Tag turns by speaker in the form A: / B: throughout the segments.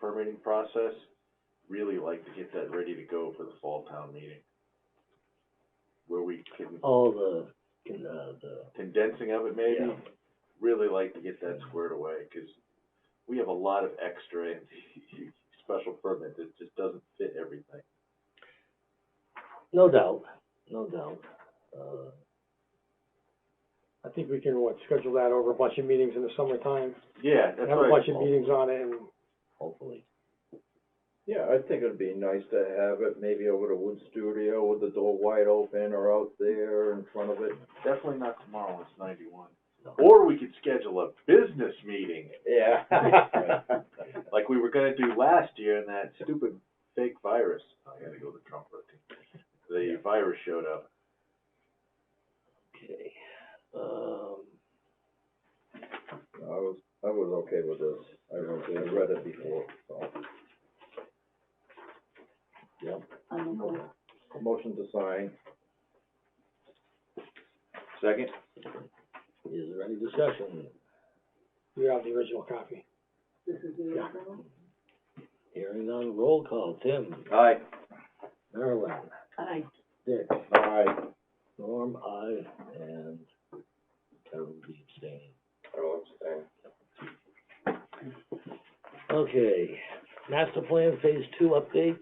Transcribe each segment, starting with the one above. A: permitting process, really like to get that ready to go for the fall town meeting. Where we can,
B: all the, can, uh, the,
A: condensing of it maybe,
B: Yeah.
A: really like to get that squared away, cause we have a lot of extra in the special permit that just doesn't fit everything.
B: no doubt, no doubt. Uh,
C: I think we can, what, schedule that over a bunch of meetings in the summertime,
A: Yeah, that's
C: have
A: what
C: a
A: I-
C: bunch of meetings on it and.
B: hopefully.
D: Yeah, I think it'd be nice to have it maybe over the wood studio with the door wide open or out there in front of it.
A: Definitely not tomorrow, it's ninety-one.
B: No.
A: Or we could schedule a business meeting,
D: Yeah.
A: like we were gonna do last year in that stupid fake virus. Oh, I gotta go to Trump, I think. The virus showed up.
B: Okay, um,
D: I was, I was okay with this. I wrote, I read it before, so.
B: yep,
D: Motion to sign.
A: Second?
B: is there any discussion?
C: You have the original copy.
B: Yeah. Hearing on roll call, Tim,
D: Aye.
B: Marilyn,
E: Aye.
B: Dick,
D: Aye.
B: Norm, I, and Carol will be abstaining.
D: I will abstain.
B: Okay, master plan phase two update,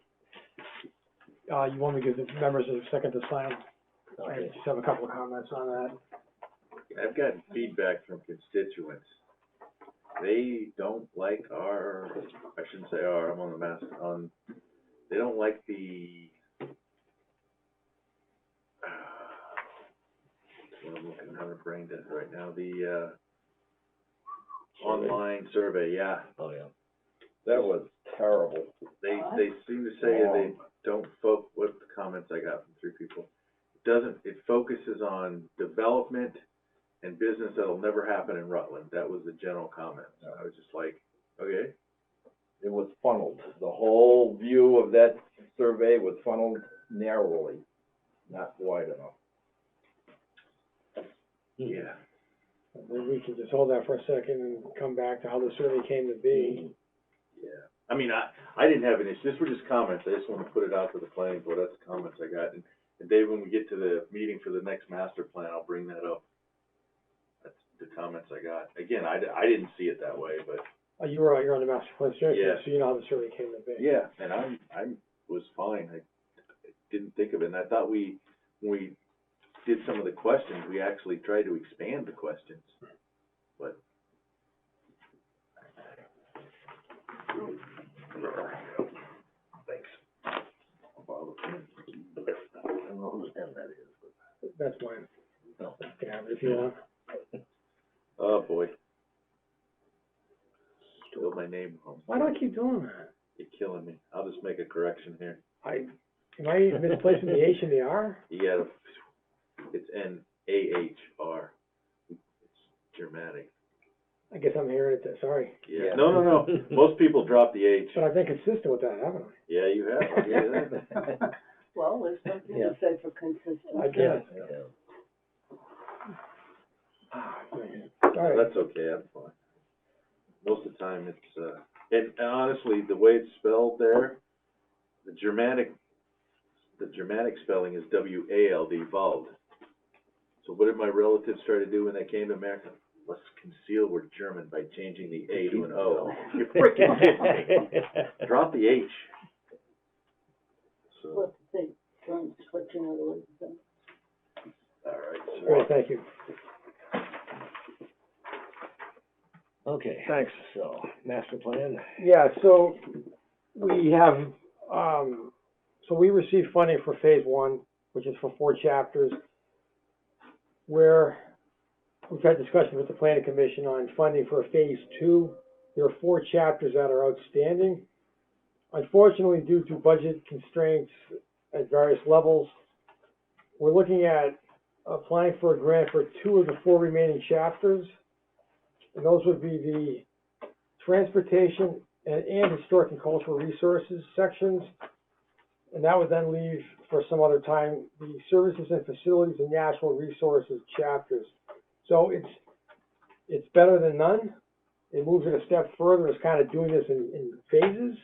C: Uh, you want me to give the members a second to sign, I
B: okay,
C: just have a couple of comments on that.
A: I've gotten feedback from constituents. They don't like our, I shouldn't say our, I'm on the mass, on, they don't like the, uh, what I'm looking, having a brain dead right now, the, uh, online survey, yeah.
B: oh, yeah.
D: That was terrible.
A: They, they seem to say they don't fo- what the comments I got from three people, it doesn't, it focuses on development and business that'll never happen in Rutland, that was the general comment, And I was just like, okay.
D: It was funneled. The whole view of that survey was funneled narrowly, not wide enough.
B: Hmm.
A: Yeah.
C: Maybe we can just hold that for a second and come back to how the survey came to be.
A: Yeah, I mean, I, I didn't have an issue, this were just comments, I just wanna put it out to the planning board, that's the comments I got, and, and Dave, when we get to the meeting for the next master plan, I'll bring that up. That's the comments I got, again, I, di- I didn't see it that way, but.
C: Uh, you were, you're on the master plan strategy,
A: Yeah.
C: so you know how the survey came to be.
A: Yeah, and I'm, I'm, was fine, I didn't think of it, and I thought we, when we did some of the questions, we actually tried to expand the questions. But,
B: I don't know whose pen that is, but,
C: That's mine,
B: no,
C: you can have it if you want.
A: oh boy. Spilled my name, on-
C: Why do I keep doing that?
A: you're killing me, I'll just make a correction here,
C: I, am I misplacing the H and the R?
A: you gotta, it's N A H R, it's Germanic.
C: I guess I'm hearing it, sorry.
A: Yeah, no, no, no, most people drop the H,
C: But I've been consistent with that, haven't I?
A: yeah, you have, I'll give you that.
E: Well, there's something to
B: Yeah.
E: say for consistency.
C: I guess.
B: yeah.
C: All right,
A: Oh, That's okay, I'm fine. Most of the time, it's, uh, and and honestly, the way it's spelled there, the Germanic, the Germanic spelling is W A L D, Wald. So what did my relatives try to do when they came to America? Let's conceal we're German by changing the A to an O. You freaking kidding me? Drop the H. So,
E: What to say, from switching other words. so.
A: all right, sorry.
C: well, thank you.
B: Okay,
C: Thanks.
B: so, master plan,
C: Yeah, so we have, um, so we received funding for phase one, which is for four chapters. Where we've had discussions with the planning commission on funding for phase two. There are four chapters that are outstanding. Unfortunately, due to budget constraints at various levels, we're looking at applying for a grant for two of the four remaining chapters. And those would be the transportation and, and historic and cultural resources sections. And that would then leave for some other time, the services and facilities and natural resources chapters. So it's, it's better than none, it moves it a step further, it's kind of doing this in, in phases.